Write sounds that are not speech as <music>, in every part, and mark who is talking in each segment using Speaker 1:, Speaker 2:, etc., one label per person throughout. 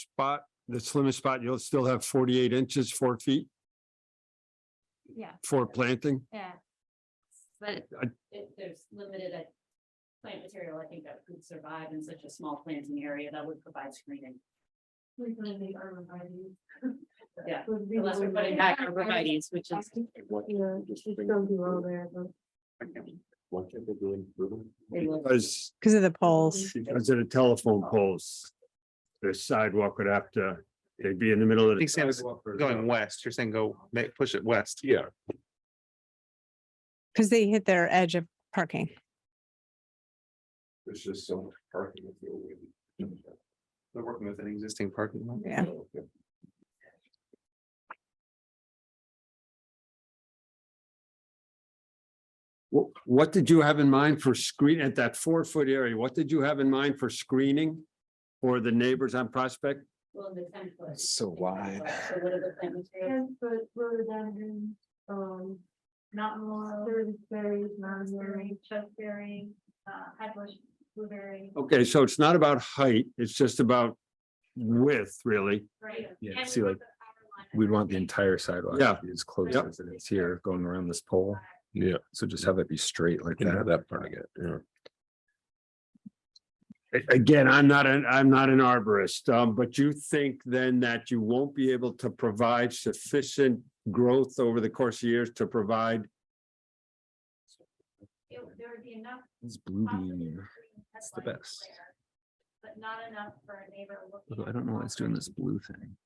Speaker 1: spot, the slimmest spot, you'll still have forty-eight inches, four feet
Speaker 2: Yeah,
Speaker 1: for planting.
Speaker 2: yeah. But
Speaker 1: I-
Speaker 2: if there's limited uh, plant material, I think that could survive in such a small planting area that would provide screening.
Speaker 3: We're gonna make arborvitae.
Speaker 2: Yeah,
Speaker 3: <laughs> We're really
Speaker 2: Unless we're
Speaker 3: gonna-
Speaker 2: putting back arborvitae's, which
Speaker 3: Yeah,
Speaker 2: is,
Speaker 3: it's still below there, but.
Speaker 4: What are they doing through them?
Speaker 2: They will.
Speaker 1: Because,
Speaker 5: Because of the poles.
Speaker 1: because of the telephone poles, the sidewalk would have to, they'd be in the middle of.
Speaker 6: I
Speaker 1: the
Speaker 6: think Sam was
Speaker 1: sidewalk or-
Speaker 6: Going west, you're saying go, make, push it west.
Speaker 4: Yeah,
Speaker 5: Because they hit their edge of parking.
Speaker 4: there's just so much parking. if you're waiting.
Speaker 6: They're working with an existing parking lot.
Speaker 5: Yeah.
Speaker 1: What, what did you have in mind for screen, at that four-foot area, what did you have in mind for screening? For the neighbors on Prospect?
Speaker 2: well, the ten foot.
Speaker 6: So wide.
Speaker 2: So what are the plant materials?
Speaker 3: Ten foot rhododendron, um, mountain laurel, berries, raspberry, chuckberry, uh, high bush blueberry.
Speaker 1: Okay, so it's not about height, it's just about width, really.
Speaker 3: Right.
Speaker 7: Yeah, see, like, We'd want the entire sidewalk.
Speaker 1: Yeah.
Speaker 7: to be As close
Speaker 1: Yep.
Speaker 7: as it is here, going around this pole.
Speaker 4: Yeah.
Speaker 7: So just have it be straight like
Speaker 4: Yeah,
Speaker 7: that.
Speaker 4: that part I get, yeah.
Speaker 1: A- Again, I'm not an, I'm not an arborist, um, but you think then that you won't be able to provide sufficient growth over the course of years to provide
Speaker 2: It would- There would be enough.
Speaker 7: It's blue
Speaker 2: possibly
Speaker 7: being
Speaker 2: green
Speaker 7: here. the
Speaker 2: headlights
Speaker 7: best.
Speaker 2: there, But not enough for a neighbor looking.
Speaker 7: Although I
Speaker 2: at
Speaker 7: don't
Speaker 2: the
Speaker 7: know why it's doing this blue thing.
Speaker 2: property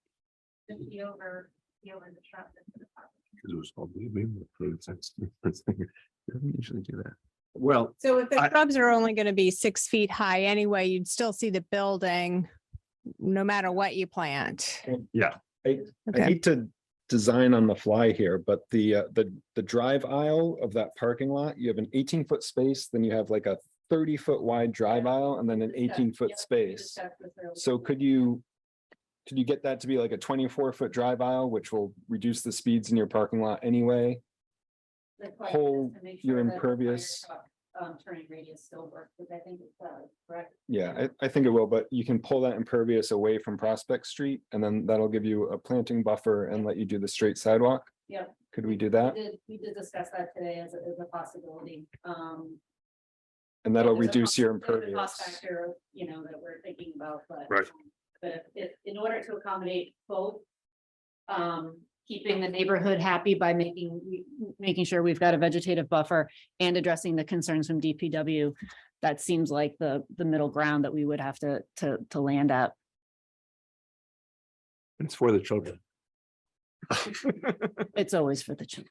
Speaker 2: to Be over, be over the truck. that's in the property.
Speaker 4: Because it was all blue beam approved, that's- that's-
Speaker 7: Doesn't usually do that.
Speaker 1: Well,
Speaker 5: So if the
Speaker 1: I-
Speaker 5: shrubs are only going to be six feet high anyway, you'd still see the building no matter what you plant.
Speaker 1: yeah.
Speaker 7: I
Speaker 5: Okay.
Speaker 7: hate to design on the fly here, but the, uh, the, the drive aisle of that parking lot, you have an eighteen foot space, then you have like a thirty foot wide drive aisle and then an
Speaker 2: Discuss-
Speaker 7: eighteen
Speaker 2: yeah,
Speaker 7: foot
Speaker 2: we
Speaker 7: space.
Speaker 2: discussed this earlier.
Speaker 7: So could you, could you get that to be like a twenty-four foot drive aisle, which will reduce the speeds in your parking lot anyway?
Speaker 2: The plan is
Speaker 7: whole-
Speaker 2: to make
Speaker 7: your
Speaker 2: sure that the fire
Speaker 7: impervious-
Speaker 2: truck, Um, turning radius still works, which I think it does, correct?
Speaker 7: Yeah, I, I think it will, but you can pull that impervious away from Prospect Street and then that'll give you a planting buffer and let you do the straight sidewalk.
Speaker 2: Yep.
Speaker 7: Could we do that?
Speaker 2: Did, we did discuss that today as a, as a possibility, um.
Speaker 7: And that'll
Speaker 2: there's a
Speaker 7: reduce your
Speaker 2: cost- there's a Cost
Speaker 7: impervious.
Speaker 2: factor, you know, that we're thinking about, but.
Speaker 1: Right.
Speaker 2: um, But if, in order to accommodate both. Um, keeping the neighborhood happy by making, making sure we've got a vegetative buffer and addressing the concerns from DPW. That seems like the, the middle ground that we would have to, to, to land at.
Speaker 4: It's for
Speaker 6: <laughs>
Speaker 4: the children.
Speaker 2: It's always for the children.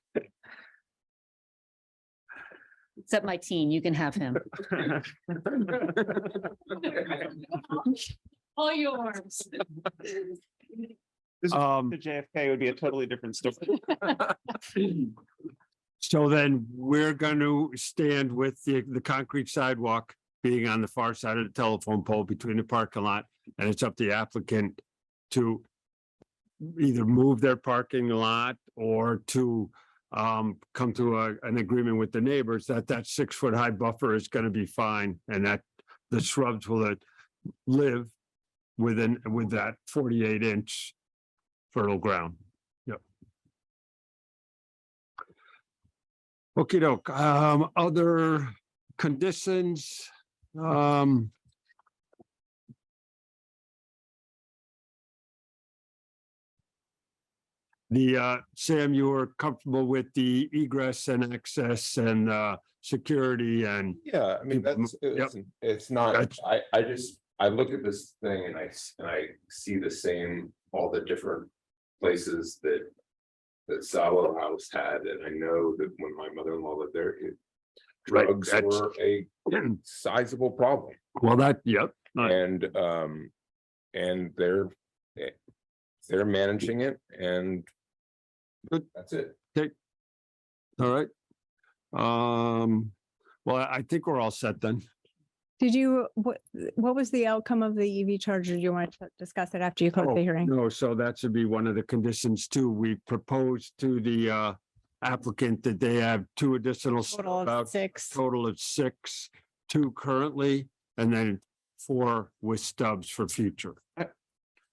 Speaker 2: Except my teen, you can have him. All yours. <laughs>
Speaker 1: Um,
Speaker 6: The JFK would be a totally different story.
Speaker 4: <laughs>
Speaker 1: so then we're going to stand with the, the concrete sidewalk being on the far side of the telephone pole between the parking lot, and it's up to the applicant to either move their parking lot or to um, come to a, an agreement with the neighbors that that six-foot-high buffer is going to be fine and that the shrubs will uh, live within, with that forty-eight inch fertile ground. Yep. Okey doke, um, other conditions, um. The, uh, Sam, you were comfortable with the egress and access and, uh, security and,
Speaker 4: Yeah, I mean,
Speaker 1: Keep 'em-
Speaker 4: that's, it's, it's not,
Speaker 1: That's-
Speaker 4: I, I just, I look at this thing and I, s- and I see the same, all the different places that. That Salo House had, and I know that when my mother-in-law lived there, it.
Speaker 1: Right,
Speaker 4: Drugs
Speaker 1: that's-
Speaker 4: were a sizable problem.
Speaker 1: <clears throat> well, that, yep, Right.
Speaker 4: And um, and they're. eh, They're managing it and.
Speaker 1: Good.
Speaker 4: That's it.
Speaker 1: all right. Um, well, I I think we're all set then.
Speaker 5: Did you, what, what was the outcome of the EV charger? Do you want to discuss it after you close
Speaker 1: Oh,
Speaker 5: the hearing?
Speaker 1: No, so that should be one of the conditions too. We proposed to the uh, applicant that they have two additional, s-
Speaker 5: Total
Speaker 1: about
Speaker 5: of six.
Speaker 1: total of six, two currently, and then four with stubs for future.